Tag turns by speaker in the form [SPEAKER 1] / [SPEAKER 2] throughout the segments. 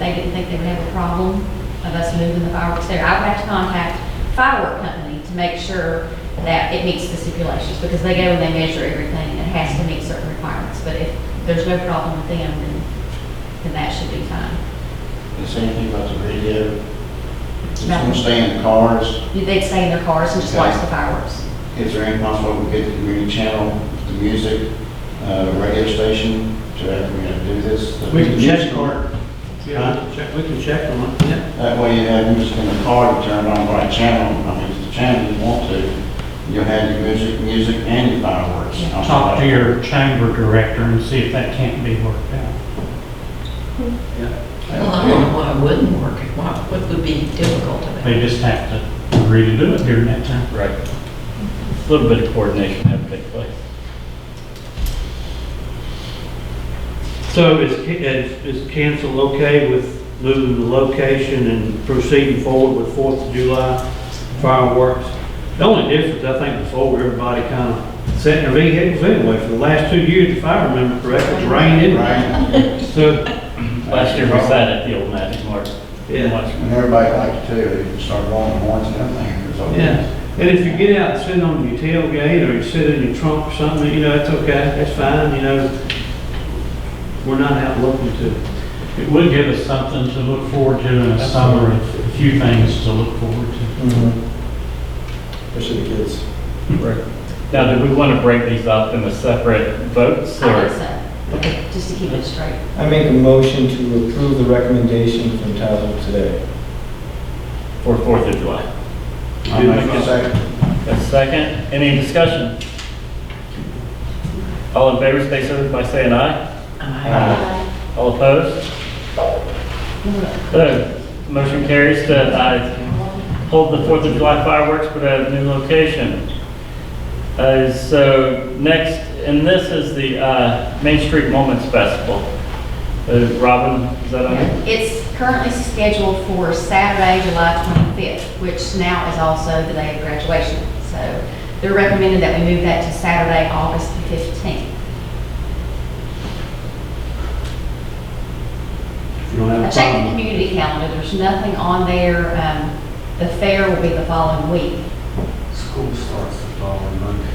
[SPEAKER 1] they didn't think they would have a problem of us moving the fireworks there. I would have to contact firework company to make sure that it meets the stipulations, because they go and they measure everything, and it has to meet certain requirements. But if there's no problem with them, then, then that should be fine.
[SPEAKER 2] The same thing about the radio. It's
[SPEAKER 1] No.
[SPEAKER 2] gonna stay in the cars.
[SPEAKER 1] They'd stay in their cars and just watch the fireworks.
[SPEAKER 2] Is there any possible we could get the community channel, the music, uh, radio station to have, we gotta do this? the
[SPEAKER 3] We can
[SPEAKER 2] music
[SPEAKER 3] check on it. Yeah, we can check, we can check on it, yeah.
[SPEAKER 2] That way you have music in the car, you turn it on the right channel, I mean, it's the channel you want to. You'll have your music, music and your fireworks. on
[SPEAKER 4] Talk to
[SPEAKER 2] that.
[SPEAKER 4] your chamber director and see if that can't be worked out.
[SPEAKER 5] Well, I don't know why it wouldn't work, why, what would be difficult about it?
[SPEAKER 4] They just have to agree to do it during that time.
[SPEAKER 6] Right. A little bit of coordination had to take place.
[SPEAKER 3] So is, ca- is is council okay with moving the location and proceeding forward with Fourth of July fireworks? The only difference, I think, before, everybody kind of set their vehicles anyway, for the last two years, if I remember correctly, it's rained anyway.
[SPEAKER 2] Right?
[SPEAKER 3] So,
[SPEAKER 6] Last year we sat at the old magic mark.
[SPEAKER 3] Yeah.
[SPEAKER 6] Watch.
[SPEAKER 2] And everybody liked it too, they start blowing horns and everything, there's always.
[SPEAKER 3] Yeah, and if you get out and sit on your tailgate, or you sit in your trunk or something, you know, that's okay, that's fine, you know. We're not out looking to,
[SPEAKER 4] It would give us something to look forward to in the summer, a few things to look forward to.
[SPEAKER 7] Mm-hmm. Especially the kids.
[SPEAKER 6] Now, do we want to break these up into separate votes
[SPEAKER 1] I
[SPEAKER 6] or?
[SPEAKER 1] think so, just to keep it straight.
[SPEAKER 7] I make a motion to approve the recommendation from Tyler today.
[SPEAKER 6] For Fourth of July.
[SPEAKER 2] I make a second.
[SPEAKER 6] A second, any discussion? All in favor, stay so by saying aye.
[SPEAKER 5] I-
[SPEAKER 6] All opposed? So, motion carries to uh, hold the Fourth of July fireworks but at a new location. Uh, So next, and this is the uh, Main Street Moments Festival. Uh, Robin, is that on? here?
[SPEAKER 1] It's currently scheduled for Saturday, July 25th, which now is also the day of graduation. So they're recommending that we move that to Saturday, August the 15th.
[SPEAKER 3] if you don't
[SPEAKER 1] I
[SPEAKER 3] have a
[SPEAKER 1] checked the
[SPEAKER 3] problem.
[SPEAKER 1] community calendar, there's nothing on there. Um, The fair will be the following week.
[SPEAKER 8] School starts the following Monday.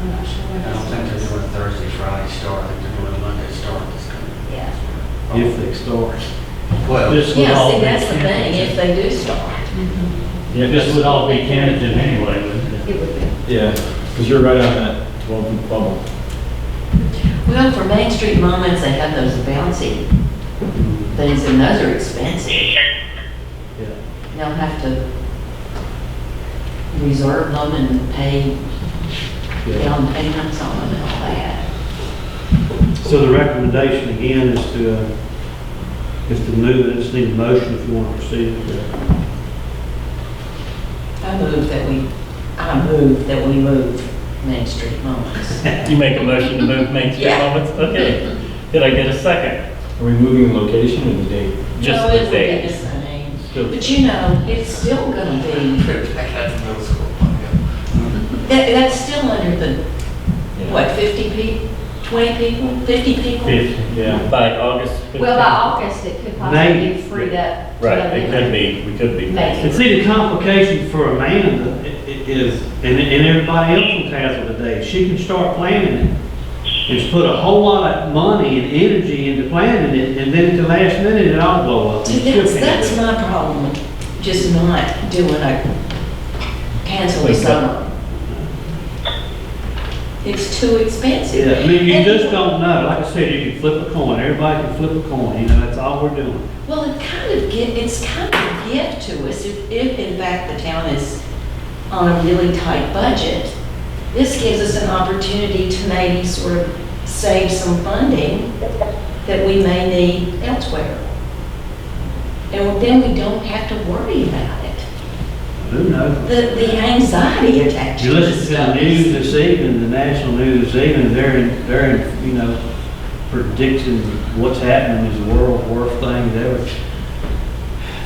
[SPEAKER 1] I'm not sure
[SPEAKER 8] I
[SPEAKER 1] when
[SPEAKER 8] don't think
[SPEAKER 1] that's.
[SPEAKER 8] they're doing Thursday, Friday start, I think they're doing Monday start this coming.
[SPEAKER 1] Yeah.
[SPEAKER 3] If they start.
[SPEAKER 8] Well,
[SPEAKER 4] This would
[SPEAKER 5] Yeah,
[SPEAKER 4] all
[SPEAKER 5] see,
[SPEAKER 4] be
[SPEAKER 5] that's the thing, if
[SPEAKER 4] tentative.
[SPEAKER 5] they do start.
[SPEAKER 4] Yeah, this would all be tentative anyway, wouldn't
[SPEAKER 1] It
[SPEAKER 4] it?
[SPEAKER 1] would be.
[SPEAKER 7] Yeah, because you're right on that 12 bubble.
[SPEAKER 5] Well, for Main Street Moments, they have those bouncy things, and those are expensive. They'll have to reserve them and pay down payments on them and all that.
[SPEAKER 3] So the recommendation again is to, uh, is to move it, just need a motion if you want to proceed.
[SPEAKER 5] I move that we, I move that we move Main Street Moments.
[SPEAKER 6] You make a motion to move Main Street
[SPEAKER 5] Yeah.
[SPEAKER 6] Moments? Okay. Did I get a second?
[SPEAKER 7] Are we moving the location or the date?
[SPEAKER 6] Just
[SPEAKER 5] No, it would be
[SPEAKER 6] the
[SPEAKER 5] the
[SPEAKER 6] date.
[SPEAKER 5] same.
[SPEAKER 6] Still-
[SPEAKER 5] But you know, it's still gonna be,
[SPEAKER 8] trip back out to middle school.
[SPEAKER 5] that, that's still under the, what, fifty people, twenty people, fifty people?
[SPEAKER 4] Fifth.
[SPEAKER 7] Yeah.
[SPEAKER 6] By August 15th?
[SPEAKER 1] Well, by
[SPEAKER 5] uh,
[SPEAKER 1] August, it could possibly
[SPEAKER 3] Maybe.
[SPEAKER 1] be freed up. to
[SPEAKER 6] Right, it could
[SPEAKER 1] November.
[SPEAKER 6] be, we could be.
[SPEAKER 1] Maybe.
[SPEAKER 3] And see, the complication for Amanda i- i- is, and, and everybody else in Tazewell today, she can start planning it. And put a whole lot of money and energy into planning it, and then at the last minute, it all blow up.
[SPEAKER 5] See, That's, that's my problem, with just not doing a, cancel the
[SPEAKER 6] Wait, but-
[SPEAKER 5] summer. It's too expensive.
[SPEAKER 3] Yeah, I mean, you
[SPEAKER 5] And-
[SPEAKER 3] just don't know, like I said, you can flip a coin, everybody can flip a coin, you know, that's all we're doing.
[SPEAKER 5] Well, it kind of get, it's kind of a gift to us if, if in fact the town is on a really tight budget. This gives us an opportunity to maybe sort of save some funding that we may need elsewhere. And then we don't have to worry about it.
[SPEAKER 3] Who knows?
[SPEAKER 5] The, the anxiety attached
[SPEAKER 3] You
[SPEAKER 5] to this
[SPEAKER 3] listen to the
[SPEAKER 5] stuff.
[SPEAKER 3] news this evening, the national news this evening, they're, in- they're, in, you know, predicting what's happening is the world's worst thing ever.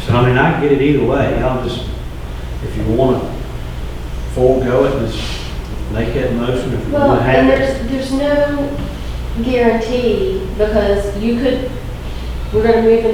[SPEAKER 3] So, I mean, I can get it either way, I'll just, if you want to forego it, just make that motion if you
[SPEAKER 9] Well,
[SPEAKER 3] want to
[SPEAKER 9] and
[SPEAKER 3] have it.
[SPEAKER 9] there's, there's no guarantee, because you could, we're gonna move in